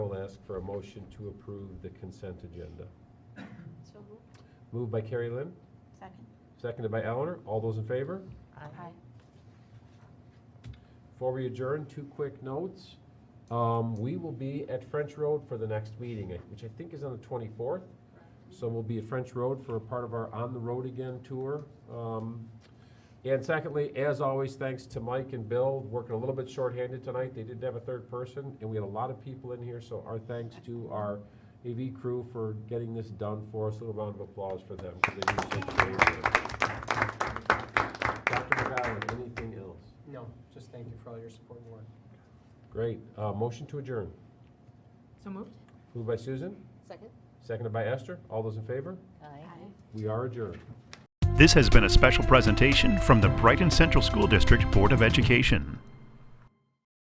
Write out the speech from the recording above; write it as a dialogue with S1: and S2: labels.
S1: ask for a motion to approve the consent agenda.
S2: So moved.
S1: Moved by Carrie Lynn,
S2: Second.
S1: seconded by Eleanor. All those in favor?
S2: Aye.
S1: Before we adjourn, two quick notes. Um, we will be at French Road for the next meeting, which I think is on the twenty-fourth. So we'll be at French Road for a part of our On the Road Again tour. Um, and secondly, as always, thanks to Mike and Bill, working a little bit shorthanded tonight. They didn't have a third person, and we had a lot of people in here, so our thanks to our AV crew for getting this done for us. A little round of applause for them, 'cause they do such great work. Dr. McGowan, anything else?
S3: No, just thank you for all your support and work.
S1: Great. Uh, motion to adjourn.
S4: So moved?
S1: Moved by Susan,
S2: Second?
S1: seconded by Esther. All those in favor?
S2: Aye.
S1: We are adjourned.
S5: This has been a special presentation from the Brighton Central School District Board of Education.